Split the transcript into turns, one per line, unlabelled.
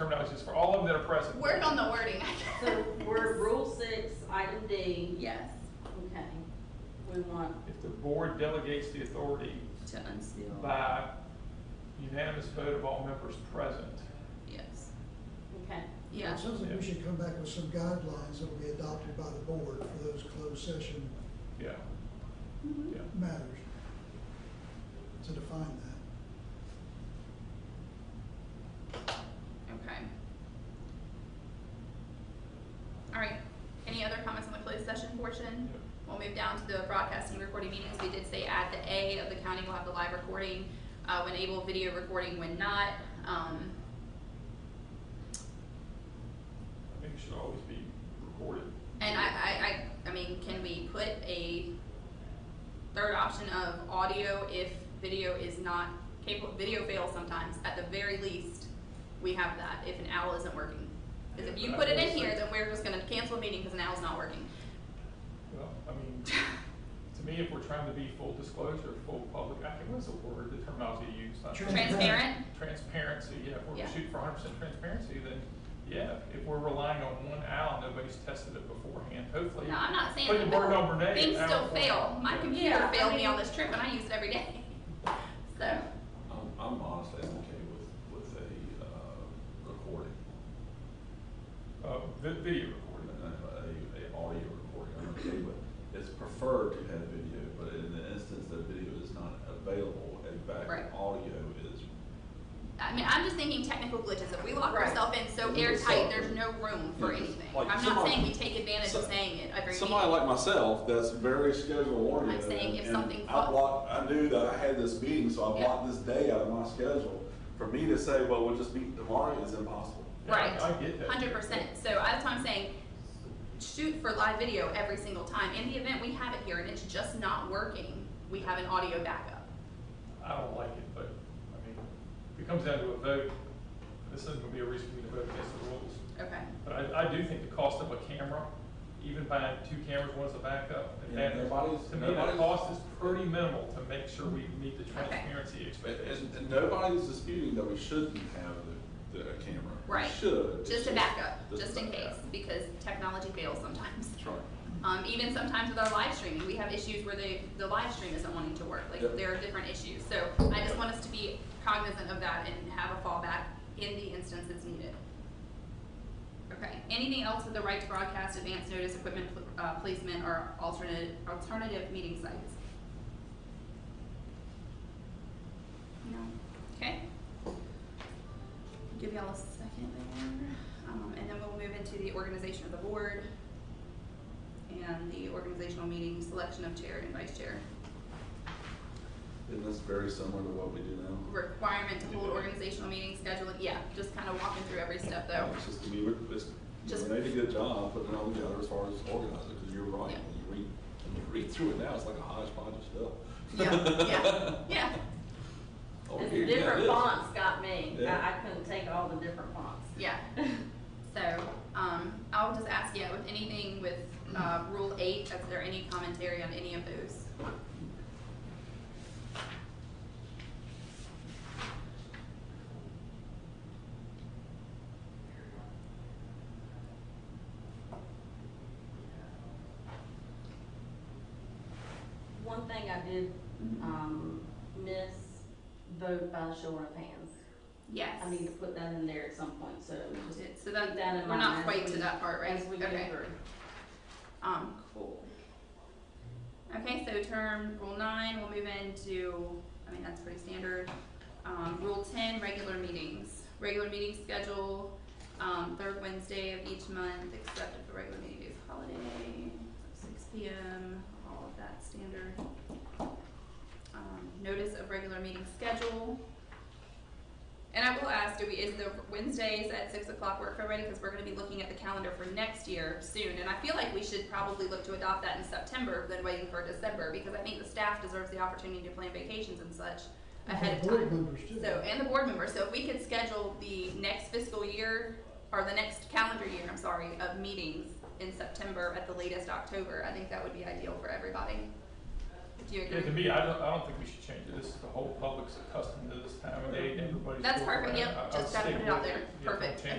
terminologies for all of them that are present.
Work on the wording.
So we're rule six, item D,
Yes,
okay, we want,
If the board delegates the authority
to unseal,
by unanimous vote of all members present.
yes,
okay,
yeah,
It sounds like we should come back with some guidelines that'll be adopted by the board for those closed session
Yeah,
Mm-hmm.
yeah.
matters to define that.
okay. All right, any other comments on the closed session portion? We'll move down to the broadcasting and recording meetings. We did say add the A of the county will have the live recording, uh, when able, video recording when not. Um,
I think it should always be recorded.
and I, I, I, I mean, can we put a third option of audio if video is not capable, video fails sometimes, at the very least, we have that if an owl isn't working. Because if
Yeah,
you
but I
put it in
will
here,
say-
then we're just gonna cancel a meeting because an owl's not working.
Well, I mean, to me, if we're trying to be full disclosure, full public, I think what's the word, the terminology you use? Not
Transparent.
Transparent,
Transparency, yeah, if we're
Yeah.
shooting for hundred percent transparency, then, yeah, if we're relying on one owl, nobody's tested it beforehand, hopefully.
no, I'm not saying.
Put the word on Renee.
Things
owl
still
for-
fail. My
Yeah.
computer
Yeah, I
failed me
mean-
on this trip and I use it every day. So,
I'm, I'm honestly okay with, with a, uh, recording,
Uh, vi- video
or
recording.
a, a, a audio recording, I'm okay with. It's preferred to have video, but in the instance that video is not available, a
Right.
backup audio is,
I mean, I'm just thinking technical glitches. If we lock
Right.
ourselves in so
If we
airtight,
lock
there's no room for
Yeah,
anything.
like
I'm not
somebody-
saying we take advantage of
so-
saying it every
Somebody
meeting.
like myself, that's very schedule oriented.
I'm saying if
and
something
I
fu-
blocked, I knew that I had this meeting, so I
Yeah.
blocked this day out of my schedule. For me to say, well, we'll just meet tomorrow is impossible.
Yeah, I-
Right.
I get that.
Hundred percent. So that's why I'm saying, shoot for live video every single time. In the event we have it here and it's just not working, we have an audio backup.
I don't like it, but, I mean, if it comes down to a vote, this isn't gonna be a reason for me to vote against the rules.
Okay.
But I, I do think the cost of a camera, even buying two cameras, one's a backup, and
Yeah,
that,
nobody's-
to me, the
nobody's-
cost is pretty minimal to make sure we meet the
Okay.
transparency
And,
expectations.
and- and nobody's disputing that we shouldn't have the, the camera. We
Right.
Should. It's
Just a backup,
a
just in case,
backup.
because technology fails sometimes.
That's right.
Um, even sometimes with our live streaming, we have issues where the, the live stream isn't wanting to work. Like
Yep.
there are different issues. So I just want us to be cognizant of that and have a fallback in the instance it's needed. Okay. Anything else with the right to broadcast, advance notice, equipment pl- uh, placement, or alternative alternative meeting sites? No. Okay. Give y'all a second there, um, and then we'll move into the organization of the board and the organizational meeting, selection of chair and vice chair.
Isn't this very similar to what we do now?
Requirement to hold organizational meeting scheduling, yeah, just kind of walking through every step though.
It's just, we, it's,
Just-
you made a good job putting it all together as far as organizing, because you're right,
Yeah.
when you read, when you read through it now, it's like a hodgepodge of stuff.
Yeah, yeah, yeah,
Oh,
it's
here,
the
yeah, it
different
is.
fonts got me, I,
Yeah.
I couldn't take all the different fonts.
yeah. So, um, I'll just ask, yeah, with anything with, uh, rule eight, is there any commentary on any of those?
One thing I did,
Mm-hmm.
um, miss, vote by showing of hands,
Yes.
I need to put that in there at some point, so just keep
So
that in mind.
that, we're not
as
quite to
we-
that part, right?
As we go
Okay.
through.
Um, cool. Okay, so term rule nine, we'll move into, I mean, that's pretty standard. Um, rule ten, regular meetings. Regular meeting schedule, um, third Wednesday of each month, except if the regular meeting is holiday, so six P M, all of that standard. Um, notice of regular meeting schedule. And I will ask, do we, is the Wednesdays at six o'clock work for everybody? Because we're gonna be looking at the calendar for next year soon, and I feel like we should probably look to adopt that in September than waiting for December, because I think the staff deserves the opportunity to plan vacations and such ahead of
Board
time.
members too.
So, and the board members, so if we could schedule the next fiscal year, or the next calendar year, I'm sorry, of meetings in September at the latest October, I think that would be ideal for everybody. Do you
Yeah, to
agree?
me, I don't, I don't think we should change it. This is the whole public's accustomed to this time of day, everybody's.
That's
going
perfect,
around.
yep,
I- I would
just gotta
stay
put it out
with
there.
Yeah, don't
Perfect.
change